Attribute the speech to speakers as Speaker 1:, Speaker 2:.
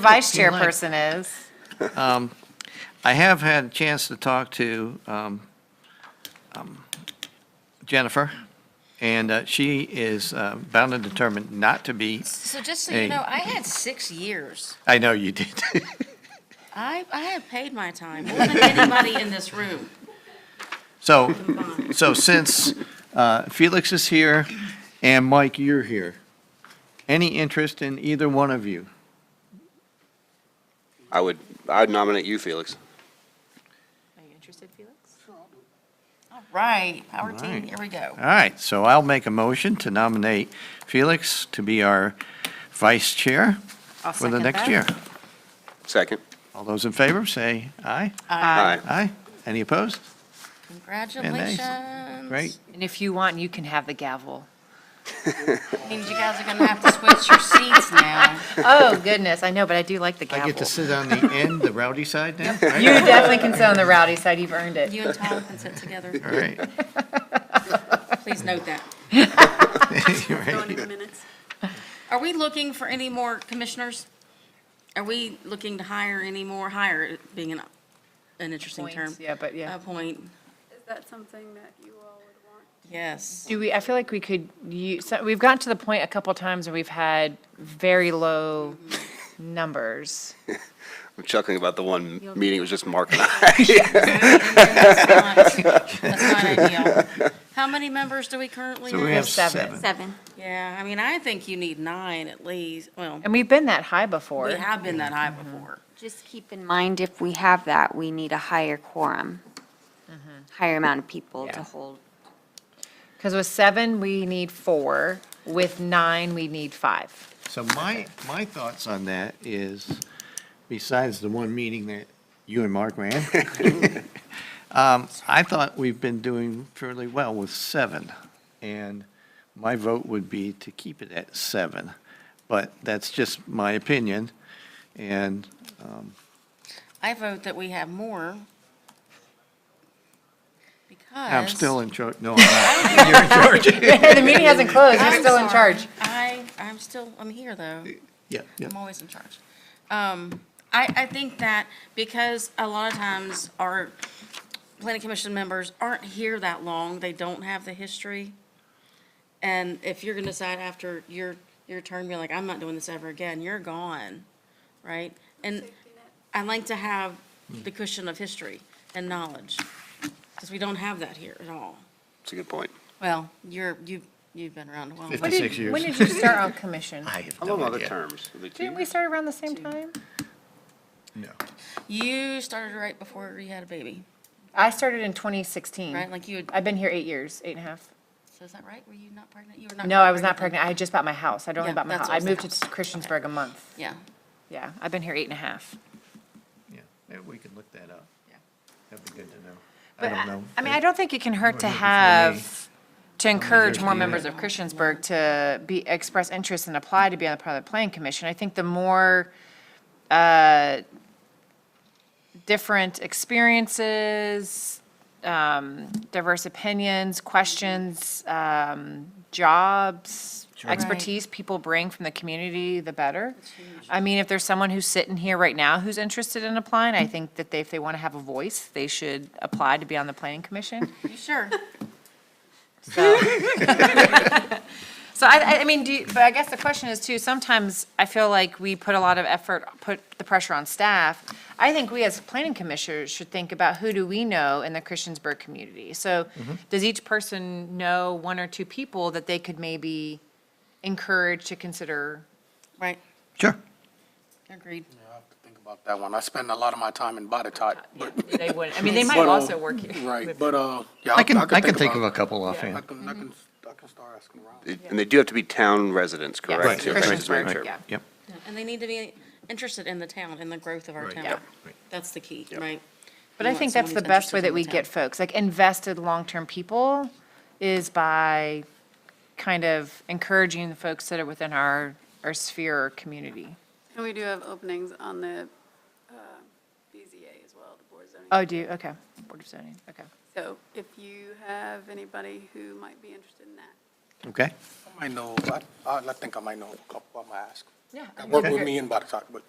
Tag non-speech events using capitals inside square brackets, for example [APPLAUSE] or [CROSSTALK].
Speaker 1: vice
Speaker 2: you like.
Speaker 1: chairperson is.
Speaker 2: I have had a chance to talk to um, um, Jennifer, and uh, she is uh, bound and determined not to be,
Speaker 3: So just so
Speaker 2: Hey.
Speaker 3: you know, I had six years.
Speaker 2: I know you did. [LAUGHS]
Speaker 3: I, I have paid my time more than anybody in this room.
Speaker 2: So, so since uh, Felix is here and Mike, you're here, any interest in either one of you?
Speaker 4: I would, I would nominate you, Felix.
Speaker 1: Are you interested, Felix?
Speaker 3: Right, Howard Dean,
Speaker 2: Right.
Speaker 3: here we go.
Speaker 2: All right, so I'll make a motion to nominate Felix to be our vice chair
Speaker 1: I'll
Speaker 2: for the
Speaker 1: second
Speaker 2: next
Speaker 1: that.
Speaker 2: year.
Speaker 4: Second.
Speaker 2: All those in favor, say aye.
Speaker 4: Aye.
Speaker 2: Aye. Any opposed?
Speaker 3: Congratulations.
Speaker 2: Great.
Speaker 1: And if you want, you can have the gavel.
Speaker 3: Means you guys are gonna have to switch your seats now.
Speaker 1: Oh, goodness, I know, but I do like the
Speaker 2: I get to
Speaker 1: gavel.
Speaker 2: sit on the end, the rowdy side now?
Speaker 1: You definitely can sit on the rowdy side, you've earned it.
Speaker 3: You and Tom can sit together.
Speaker 2: All right. [LAUGHS]
Speaker 3: Please note that.
Speaker 2: Right.
Speaker 3: Are we looking for any more commissioners? Are we looking to hire any more, hire being an, an interesting term?
Speaker 1: Points, Yeah, but yeah.
Speaker 3: Appoint,
Speaker 5: Is that something that you all would want?
Speaker 3: yes.
Speaker 1: Do we, I feel like we could use, so we've gotten to the point a couple times where we've had very low Mm-hmm. numbers.
Speaker 4: I'm chuckling about the one meeting, it was just
Speaker 1: [LAUGHS]
Speaker 4: Mark and I.
Speaker 3: That's not that's not ideal. How many members do we currently
Speaker 2: So
Speaker 3: have?
Speaker 2: we have
Speaker 1: seven.
Speaker 2: seven.
Speaker 5: Seven.
Speaker 3: Yeah, I mean, I think you need nine at least. Well,
Speaker 1: And we've been that high before.
Speaker 3: we have been that high
Speaker 2: Mm-hmm.
Speaker 3: before.
Speaker 5: Just keep in mind, if we have that, we need a higher quorum, higher amount of people
Speaker 1: Yeah.
Speaker 5: to hold.
Speaker 1: Because with seven, we need four. With nine, we need five.
Speaker 2: So my, my thoughts on that is, besides the one meeting that you and Mark ran, [LAUGHS] um, I thought we've been doing fairly well with seven. And my vote would be to keep it at seven. But that's just my opinion. And
Speaker 3: I vote that we have more. Because.
Speaker 2: I'm still in charge. No, I'm
Speaker 1: [LAUGHS] The meeting hasn't closed, you're
Speaker 3: I'm
Speaker 1: still in
Speaker 3: sorry.
Speaker 1: charge.
Speaker 3: I, I'm still, I'm here though.
Speaker 2: not. Yeah.
Speaker 3: I'm always in charge. Um, I, I think that because a lot of times our planning commission members aren't here that long, they don't have the history. And if you're gonna decide after your, your term, you're like, I'm not doing this ever again, you're gone, right? And I like to have the cushion of history and knowledge, because we don't have that here at all.
Speaker 4: It's a good point.
Speaker 3: Well, you're, you, you've been around a while.
Speaker 1: When
Speaker 2: Fifty.
Speaker 1: did-
Speaker 2: Six years.
Speaker 1: When did you start on commission?
Speaker 2: [LAUGHS] I have
Speaker 4: I
Speaker 2: no
Speaker 4: love other
Speaker 2: idea.
Speaker 4: terms.
Speaker 1: Didn't we start around the same time?
Speaker 2: No.
Speaker 3: You started right before you had a baby,
Speaker 1: I started in 2016.
Speaker 3: right? Like you had
Speaker 1: I've been here eight years, eight and a half.
Speaker 3: So is that right? Were you not pregnant? You were not.
Speaker 1: No, I was not pregnant. I had just bought my house. I'd only
Speaker 3: Yeah,
Speaker 1: bought my house.
Speaker 3: that's what
Speaker 1: I
Speaker 3: was the
Speaker 1: moved to
Speaker 3: house.
Speaker 1: Christiansburg a month.
Speaker 3: Yeah.
Speaker 1: Yeah, I've been here eight and a half.
Speaker 2: Yeah, maybe we can look that up.
Speaker 3: Yeah.
Speaker 2: That'd be good to know. I
Speaker 1: But
Speaker 2: don't know.
Speaker 1: I mean, I don't think it can hurt to
Speaker 2: Maybe before
Speaker 1: have, to encourage more
Speaker 2: do
Speaker 1: members of Christiansburg to be, express interest and apply to be on the part of the planning commission. I think the more, uh, different experiences, um, diverse opinions, questions, um, jobs, expertise people bring from the community, the better. I mean, if there's someone who's sitting here right now who's interested in applying, I think that they, if they want to have a voice, they should apply to be on the planning commission.
Speaker 3: You [LAUGHS] sure?
Speaker 1: So, so I, I- I mean, do, you- but I guess the question is too, sometimes I feel like we put a lot of effort, put the pressure on staff. I think we as planning commissioners should think about who do we know in the Christiansburg community? So does each person know one or two people that they could maybe encourage to consider?
Speaker 3: Right.
Speaker 2: Sure.
Speaker 3: Agreed.
Speaker 6: I have to think about that one. I spend a lot of my time in Body Tot. but-
Speaker 1: They would, I mean, they might
Speaker 6: [LAUGHS] but, uh,
Speaker 1: also work here.
Speaker 6: Right, but, uh, yeah.
Speaker 2: I can, I can
Speaker 6: about
Speaker 2: think of
Speaker 6: it.
Speaker 2: a couple
Speaker 6: I
Speaker 2: offhand.
Speaker 6: can, I can, I can start asking around.
Speaker 4: And they do have to be town residents,
Speaker 1: Yes,
Speaker 4: correct?
Speaker 2: Right,
Speaker 4: Okay, just making
Speaker 1: Christiansburg,
Speaker 4: sure.
Speaker 1: yeah.
Speaker 2: Yep.
Speaker 3: And they need to be interested in the town and the growth of our
Speaker 2: Right.
Speaker 3: town.
Speaker 1: Yeah.
Speaker 2: Right.
Speaker 3: That's the key,
Speaker 4: Yep.
Speaker 3: right?
Speaker 1: But I
Speaker 3: want
Speaker 1: think
Speaker 3: someone
Speaker 1: that's the
Speaker 3: who's
Speaker 1: best way
Speaker 3: interested
Speaker 1: that
Speaker 3: in
Speaker 1: we
Speaker 3: the
Speaker 1: get
Speaker 3: town.
Speaker 1: folks, like invested long-term people is by kind of encouraging the folks that are within our, our sphere or community.
Speaker 7: And we do have openings on the uh, BZA as well, the Board of Zoning.
Speaker 1: Oh, do you, okay, Board of Zoning, okay.
Speaker 7: So if you have anybody who might be interested in that.
Speaker 2: Okay.
Speaker 6: I might know, I, I think I might know a couple. I might ask.
Speaker 1: Yeah.
Speaker 6: I work with me in Body Tot, but.